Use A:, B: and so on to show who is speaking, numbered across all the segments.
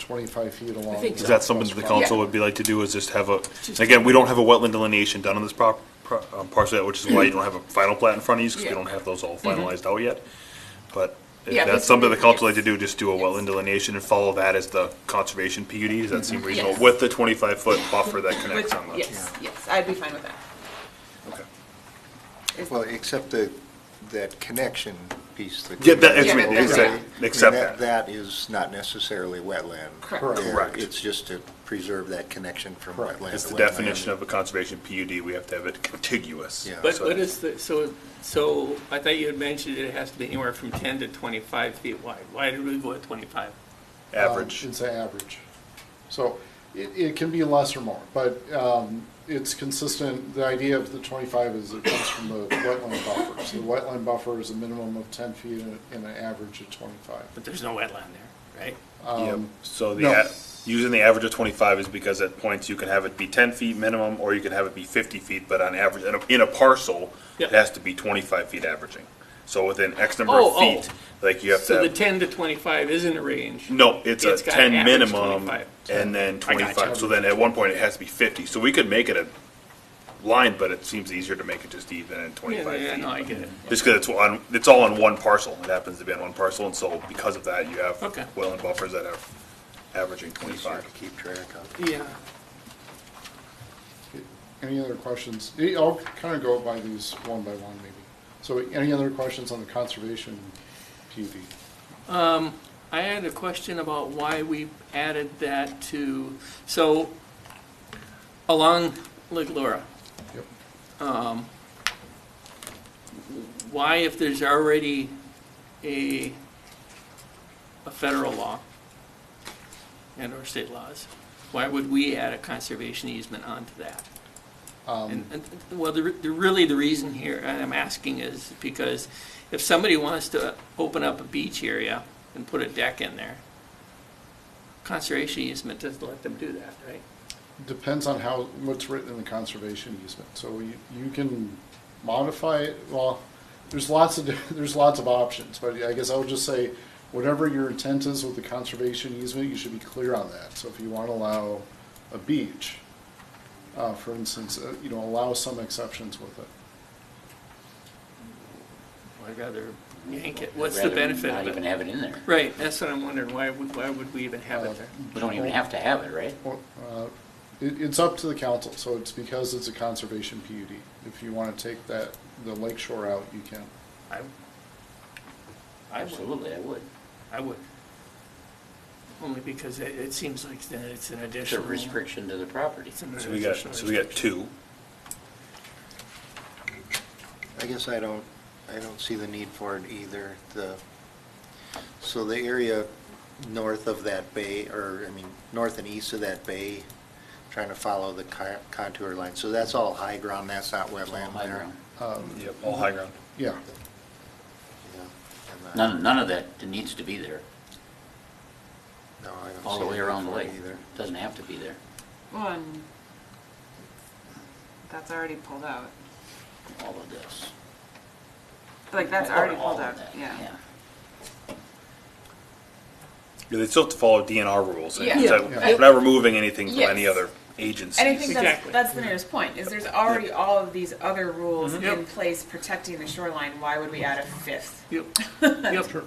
A: twenty-five feet along.
B: think
A: the
B: so.
C: Is that something that the council
B: Yeah.
C: would be like to do, is just have a, again, we don't have a wetland delineation done on this prop, pro- um, parcel yet, which is why you don't have a final plat in front of you, because we
B: Yeah. Mm-hmm.
C: don't have those all finalized out yet. But
B: Yeah,
C: if
B: this
C: that's something
B: would
C: the
B: be-
C: council
B: yes.
C: like to do, just do a wetland delineation and follow that as the conservation PUD, does that seem reasonable?
B: Mm-hmm. Yes.
C: With the twenty-five foot buffer that
B: Which,
C: connects on the.
B: yes, yes, I'd be fine with that.
C: Okay.
B: Is-
A: Well, except the, that connection piece that.
C: Yeah, that- it's-
A: Yeah,
B: Yeah, that's right.
A: I mean,
C: Except
A: That is not necessarily wetland.
B: Correct.
A: There,
C: Correct.
A: It's just to preserve that connection from wetland to wetland.
C: It's the definition of a conservation PUD, we have to have it contiguous.
A: Yeah.
D: But
C: So
D: what
C: that-
D: is the, so, so I thought you had mentioned it has to be anywhere from 10 to 25 feet wide. Why did we go at 25?
C: Average.
E: Um, It's an average. So it, it can be less or more, but um, it's consistent, the idea of the 25 is it comes from the wetland buffer. So the wetland buffer is a minimum of 10 feet and and an average of 25.
D: But there's no wetland there, right?
C: Yep. So the,
E: no.
C: a- using the average of twenty-five is because at points you can have it be ten feet minimum, or you can have it be fifty feet, but on average, in a, in a parcel, it
D: Yep.
C: has to be twenty-five feet averaging. So within X number
D: Oh,
C: of
D: oh.
C: feet, like you have to,
D: So the
C: have-
D: 10 to 25 isn't a range.
C: no, it's a
D: It's gotta
C: ten
D: average
C: minimum,
D: 25.
C: and then
D: I gotcha.
C: twenty-five, so then at one point it has to be fifty, so we could make it a line, but it seems easier to make it just even and
D: Yeah,
C: twenty-five feet.
D: yeah, no, I get it.
C: Just because it's on, it's all on one parcel, it happens to be on one parcel, and so because of that, you have
D: Okay.
C: wetland buffers that are averaging
A: Easier
C: twenty-five.
A: to keep track of.
D: Yeah.
E: Any other questions? Eh, I'll kind of go by these one by one maybe. So any other questions on the conservation PUD?
D: I had a question about why we added that to, so along Lake Laura,
E: Yep.
D: why if there's already a, a federal law and or state laws, why would we add a conservation easement onto that? And, and, well, the, the, really the reason here, and I'm asking is because if somebody wants to open up a beach area and put a deck in there, conservation easement doesn't let them do that, right?
E: Depends on how, what's written in the conservation easement. So you, you can modify it, well, there's lots of, there's lots of options, but I guess I would just say, whatever your intent is with the conservation easement, you should be clear on that. So if you want to allow a beach, uh, for instance, uh, you know, allow some exceptions with it.
D: I'd rather yank it. What's the
F: Rather
D: benefit
F: Not
D: of
F: even
D: it?
F: have it in there.
D: Right, that's what I'm wondering. Why would, why would we even have it there?
F: We don't even have to have it, right?
E: Well, uh, It, it's up to the council, so it's because it's a conservation PUD. If you want to take that, the lake shore out, you can.
D: I, I would,
F: Absolutely, I would.
D: I would. Only because it, it seems like then it's an
F: It's a
D: additional.
F: restriction to the property.
D: it's an
C: So we got,
D: additional
C: so we got
D: restriction.
C: two.
A: I guess I don't, I don't see the need for it either. The, so the area north of that bay, or, I mean, north and east of that bay, trying to follow the co- contour line, so that's all high ground, that's not wetland
F: High
A: there.
F: ground.
C: Yep, all high ground.
E: Yeah,
A: Yeah. And, uh,
F: None, none of that needs to be there,
A: No, I don't
F: all the
A: see
F: way
A: a need
F: around the
A: for it
F: lake.
A: either.
F: Doesn't have to be there.
B: One, that's already pulled out.
F: All of this.
B: Like, that's
F: All-
B: already
F: all
B: pulled
F: of
B: out,
F: that,
B: yeah.
C: Yeah, They still have to follow DNR rules. and
B: Yeah.
C: it's like,
E: Yeah.
C: We're not removing anything from
B: Yes.
C: any other agency.
B: And I think that's,
D: Exactly.
B: that's the nearest point, is there's already all of these other rules
D: Mhm. Yep.
B: in place protecting the shoreline, why would we add a fifth?
D: Yep, yep,
F: Just for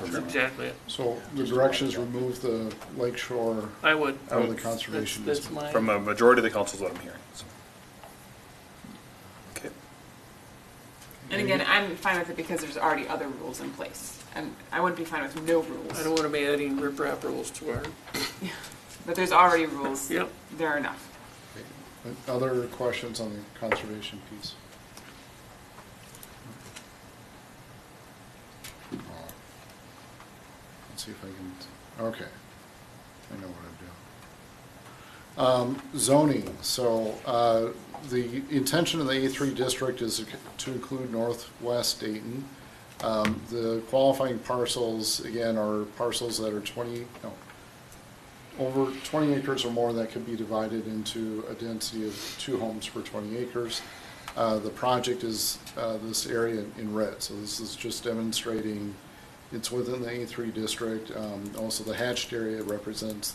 D: that's
F: now.
D: exactly it.
E: so the direction is remove the lake shore
D: I would.
E: out of the
D: That's-
E: conservation
D: That's
E: easement.
D: my.
C: From a majority of the councils, what I'm hearing. so. Okay.
B: And
D: Mm-hmm.
B: again, I'm fine with it because there's already other rules in place. And I wouldn't be fine with no
D: I don't
B: rules,
D: want to be adding riprap rules to our,
B: but there's already rules.
D: Yep.
B: There are enough.
E: Other questions on the conservation piece? Uh, Let's see if I can, okay, I know what I'm doing. Um, zoning, so, uh, the intention of the A three district is to include northwest Dayton. Um, the qualifying parcels, again, are parcels that are twenty, no, over 20 acres or more that could be divided into a density of two homes per 20 acres. Uh, The project is uh, this area in red, so this is just demonstrating it's within the A3 district. Um, Also, the hatched area represents